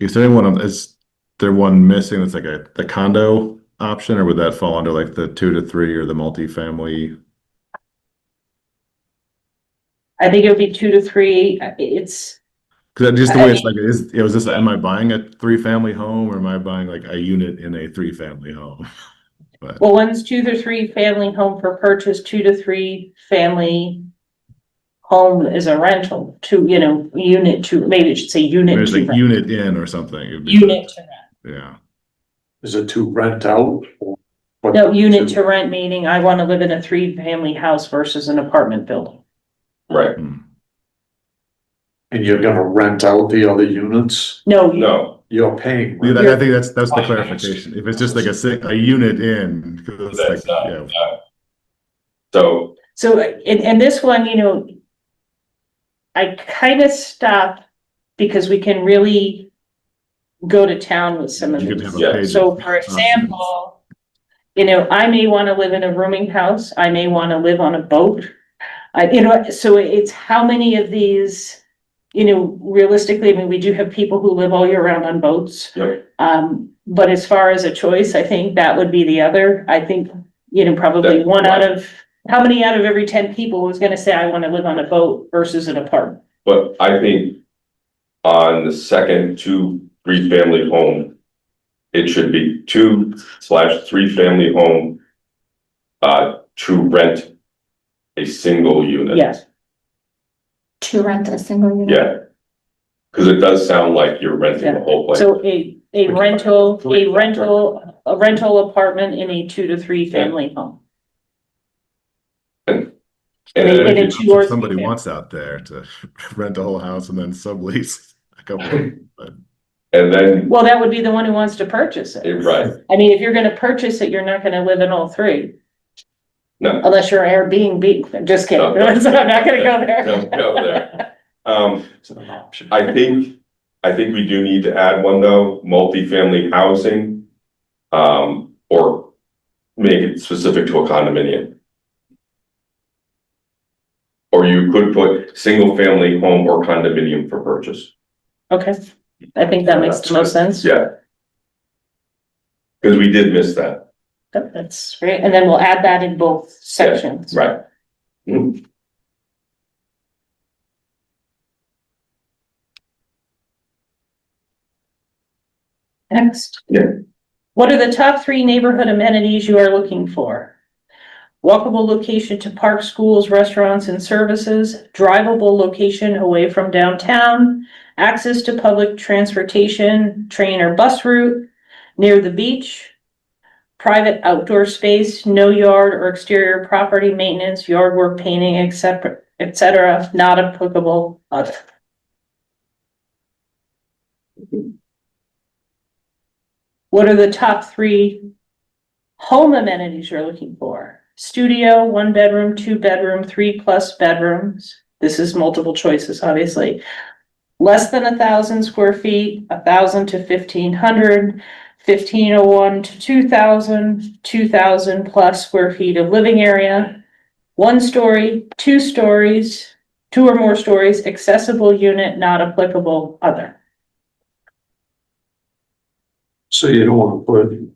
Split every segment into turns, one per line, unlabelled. Is there anyone, is there one missing that's like a, the condo option, or would that fall under like the two to three or the multifamily?
I think it would be two to three, uh, I- it's,
Cause that- just the way it's like, is, it was this, am I buying a three-family home, or am I buying like a unit in a three-family home?
well, one's two to three family home for purchase, two to three family home is a rental, two, you know, unit to, maybe it should say unit
There's
to
like
rent.
unit in or something. it'd be-
Unit to rent,
Yeah,
Is it to rent out? or-
no, unit to rent meaning I wanna live in a three-family house versus an apartment building.
Right,
Hmm.
And you're gonna rent out the other units?
No, you-
no,
You're paying.
Yeah,
rent.
that- I think that's, that's the
Fine.
clarification. If it's just like a, si- a unit in, 'cause it's like,
that's not,
uh,
yeah,
no. So,
So, uh, and, and this one, you know, I kind of stopped because we can really go to town with some of
you could
these.
have a
Yeah.
page.
So for example, you know, I may want to live in a rooming house, I may want to live on a boat. I, you know, so it's how many of these, you know, realistically, I mean, we do have people who live all year round on boats.
Yep.
Um, but as far as a choice, I think that would be the other, I think, you know, probably
That-
one out of, how many out of every ten people was gonna say, I want to live on a boat versus an apartment?
but I think on the second two, three family home, it should be two slash three family home uh, to rent a single unit.
Yes,
to rent a single unit.
Yeah. Cause it does sound like you're renting the whole place.
so a, a rental, a rental, a rental apartment in a two to three family home.
And
in
then
a
if
two or
If Somebody
three-family.
wants out there to rent the whole house and then sublease a couple.
you- and then,
Well, that would be the one who wants to purchase
eh,
it.
right,
I mean, if you're gonna purchase it, you're not gonna live in all three.
No.
Unless you're Airbnb, I'm just kidding,
No, no.
So I'm not gonna go
don't
there.
go there. Um,
It's an option.
I think, I think we do need to add one though, multifamily housing. Um, or make it specific to a condominium. Or you could put single family home or condominium for purchase,
Okay, I think that makes the most sense.
yeah. Cause we did miss that,
Yep, That's great, and then we'll add that in both sections.
right? Mm,
Next.
Yeah.
What are the top three neighborhood amenities you are looking for? Walkable location to parks, schools, restaurants and services, drivable location away from downtown, access to public transportation, train or bus route, near the beach, private outdoor space, no yard or exterior property maintenance, yard work, painting, etc., etc., not applicable. other. What are the top three home amenities you're looking for? Studio, one bedroom, two bedroom, three plus bedrooms. This is multiple choices, obviously. Less than a thousand square feet, a thousand to fifteen hundred, fifteen oh one to two thousand, two thousand plus square feet of living area. One story, two stories, two or more stories, accessible unit, not applicable, other.
So you don't wanna put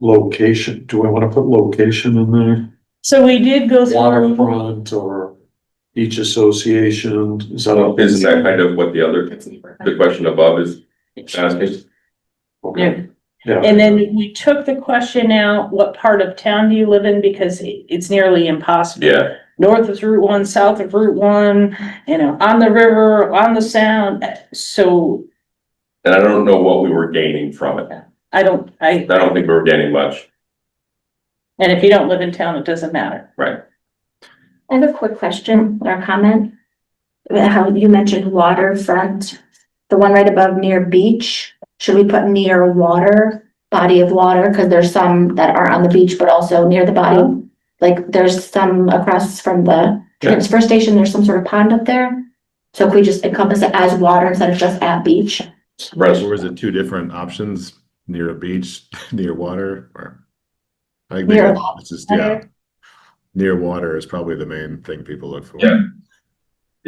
location, do I wanna put location in there?
So we did go through.
Waterfront or each association, is that a?
Isn't that kind of what the other, the question above is asking?
Yeah.
Okay. Yeah.
And then we took the question out, what part of town do you live in? Because it- it's nearly impossible.
Yeah,
North of Route One, south of Route One, you know, on the river, on the sound, so
and I don't know what we were gaining from it.
I don't, I,
I don't think we were gaining much,
and if you don't live in town, it doesn't matter.
right?
I have a quick question or comment. How you mentioned waterfront, the one right above near beach, should we put near water, body of water? Cause there's some that are on the beach, but also near the body. Like there's some across from the transfer station, there's some sort of pond up there. So can we just encompass it as water instead of just at beach?
Rest-
Or is it two different options, near a beach, near water, or? I think
Near
maybe it's just, yeah. Near water is probably the main thing people look for.
Yeah.